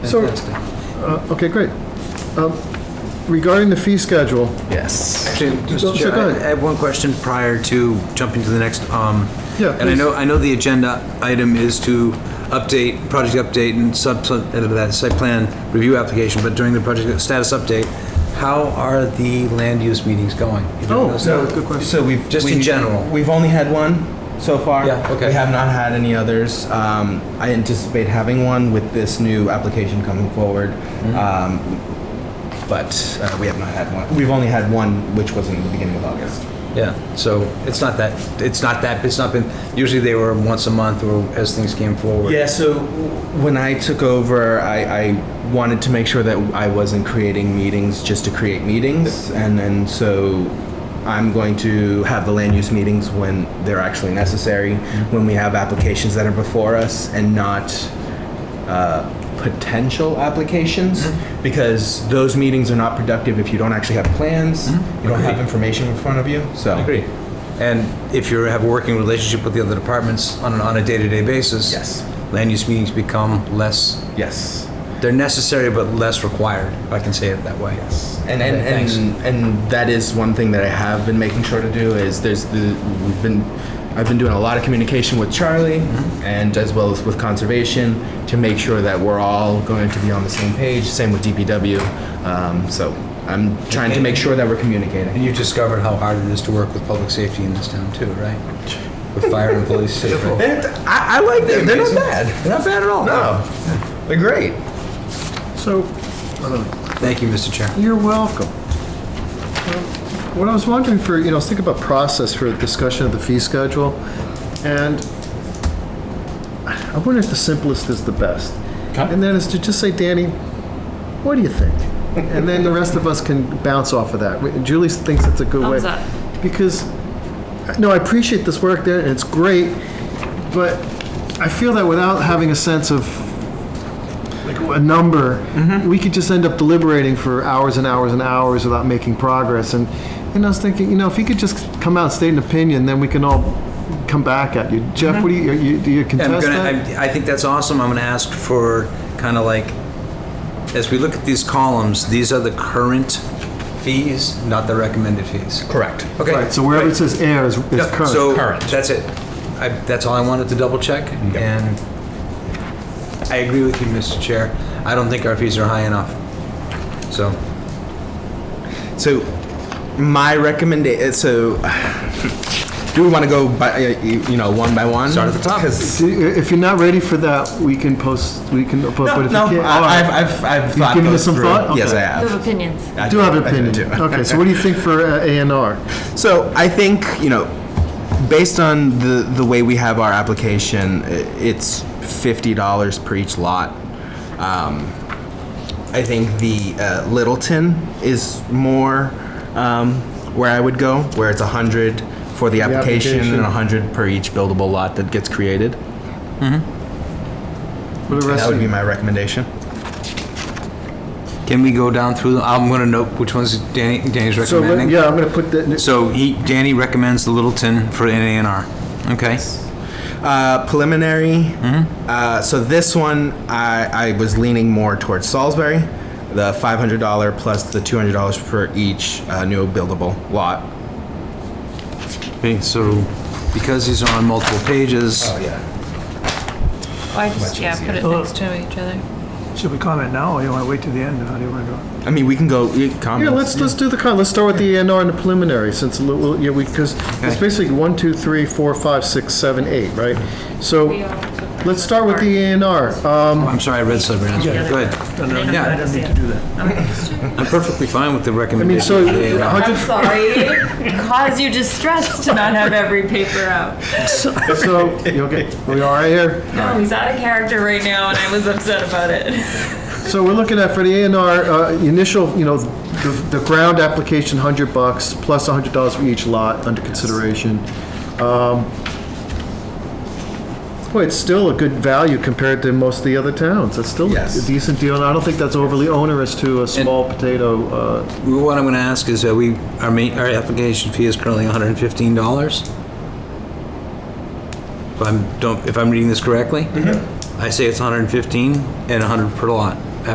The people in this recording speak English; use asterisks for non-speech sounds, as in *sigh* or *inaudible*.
So- fantastic. Uh, Okay, great. Um, Regarding the fee schedule, Yes. So- Mr. so Chair, go I ahead. I have one question prior to jumping to the next. um, Yeah, And I please. know, I know the agenda item is to update, project update and sub, sub- uh, that site plan review application, but during the project status update, how are the land use meetings going? You don't Oh, know? So, Good question. so we've Just in we've- general. We've only had one so far. Yeah, okay. We have not had any others. Um, I anticipate having one with this new application coming forward. Mm-hmm. Um, but uh, we have not had one. We've only had one, which was in the beginning of August. Yeah, so it's not that, it's not that, it's not been, usually they were once a month or as things came forward. Yeah, so when I took over, I, I wanted to make sure that I wasn't creating meetings just to create meetings. And then so I'm going to have the land use meetings when they're actually necessary, when we have applications that are before us and not uh, potential applications, because those meetings are not productive if you don't actually have plans, you don't have information in front of you. So I agree. And if you have a working relationship with the other departments on, an- on a day-to-day basis. Yes. Land use meetings become less, Yes. they're necessary but less required, if I can say it that way. And and, Okay, thanks. and and that is one thing that I have been making sure to do is there's the we've been I've been doing a lot of communication with Charlie Mm-hmm. and as well as with conservation to make sure that we're all going to be on the same page. Same with DPW. Um, so I'm trying to make sure that we're communicating. And you discovered how hard it is to work with public safety in this town too, right? With fire and police. *laughs* safety. I, I like them. They're not bad. They're not bad at all. No, they're great. so Thank you, Mr. Chair. you're welcome. Um, What I was wondering for, you know, I was thinking about process for discussion of the fee schedule, and I wonder if the simplest is the best. Okay. And that is to just say, Danny, what do you think? And then the rest of us can bounce off of that. We- Julie thinks it's a good way. Thumbs up. Because, no, I appreciate this work there, and it's great, but I feel that without having a sense of like a number, we could just end up deliberating for hours and hours and hours without making progress. And, and I was thinking, you know, if you could just come out and state an opinion, then we can all come back at you. Jeff, what do you, are you do you contest I'm gonna, that? I, I think that's awesome. I'm gonna ask for kind of like, as we look at these columns, these are the current fees, not the recommended fees. Correct. Okay. Right, so wherever it says air is, is Yeah, current. So, Current. that's it. I, that's all I wanted to double check, and I agree with you, Mr. Chair. I don't think our fees are high enough. So, So, my recommendation. So, *sighs* do we want to go by uh, you you know one by one? Start at the top. 'Cause- See, i- if you're not ready for that, we can post, we can, but but No, if no, you can't. all I- right. I've, I've, I've You've thought given those this some through. thought? Yes, I Okay. You have have. opinions. I do have an I do opinion. too. Okay, so what do you think for uh, A and R? So I think you know, based on the the way we have our application, i- it's fifty dollars per each lot. Um, I think the uh, Littleton is more um, where I would go, where it's a hundred for the application, application. and a hundred per each buildable lot that gets created. For the rest That would of be you? my recommendation. can we go down through? them? I'm going to note which ones Danny, Danny's So, recommending. let- yeah, I'm gonna put that, So he, Danny recommends the Littleton for an A&R. Okay. Uh, preliminary. Mm-hmm. Uh, so this one, I, I was leaning more towards Salisbury, the $500 plus the $200 per each uh, new buildable lot. Okay. So, because these are on multiple pages, Oh, yeah. Oh, I just, yeah, put it next to each other. Should we comment now, or you want to wait till the end? How do you want to do it? I mean, we can go. we can comment. yeah, let's, let's do the, con- let's start with the A and R and the preliminary, since, a little- yeah, we, because it's Okay. basically one, two, three, four, five, six, seven, eight, right? So, let's start with the A and R. Um, I'm sorry, I read something. else. Go ahead. Yeah. I don't need to do that. I'm perfectly fine with the I mean, recommendation. so, for the A&R. hundred, I'm sorry, cause you distress to not have every paper out. so, you okay, we are here. No, he's out of character right now, and I was upset about it. So we're looking at for the A and R, uh, initial, you know, the, the ground application, hundred bucks, plus a hundred dollars for each lot under consideration. Um, Boy, it's still a good value compared to most of the other towns. It's still a Yes. decent deal, and I don't think that's overly onerous to a small potato, uh, What I'm going to ask is, are we, our main, our application fee is currently $115? If I'm, don't, if I'm reading this correctly? I say it's 115 and 100 per lot.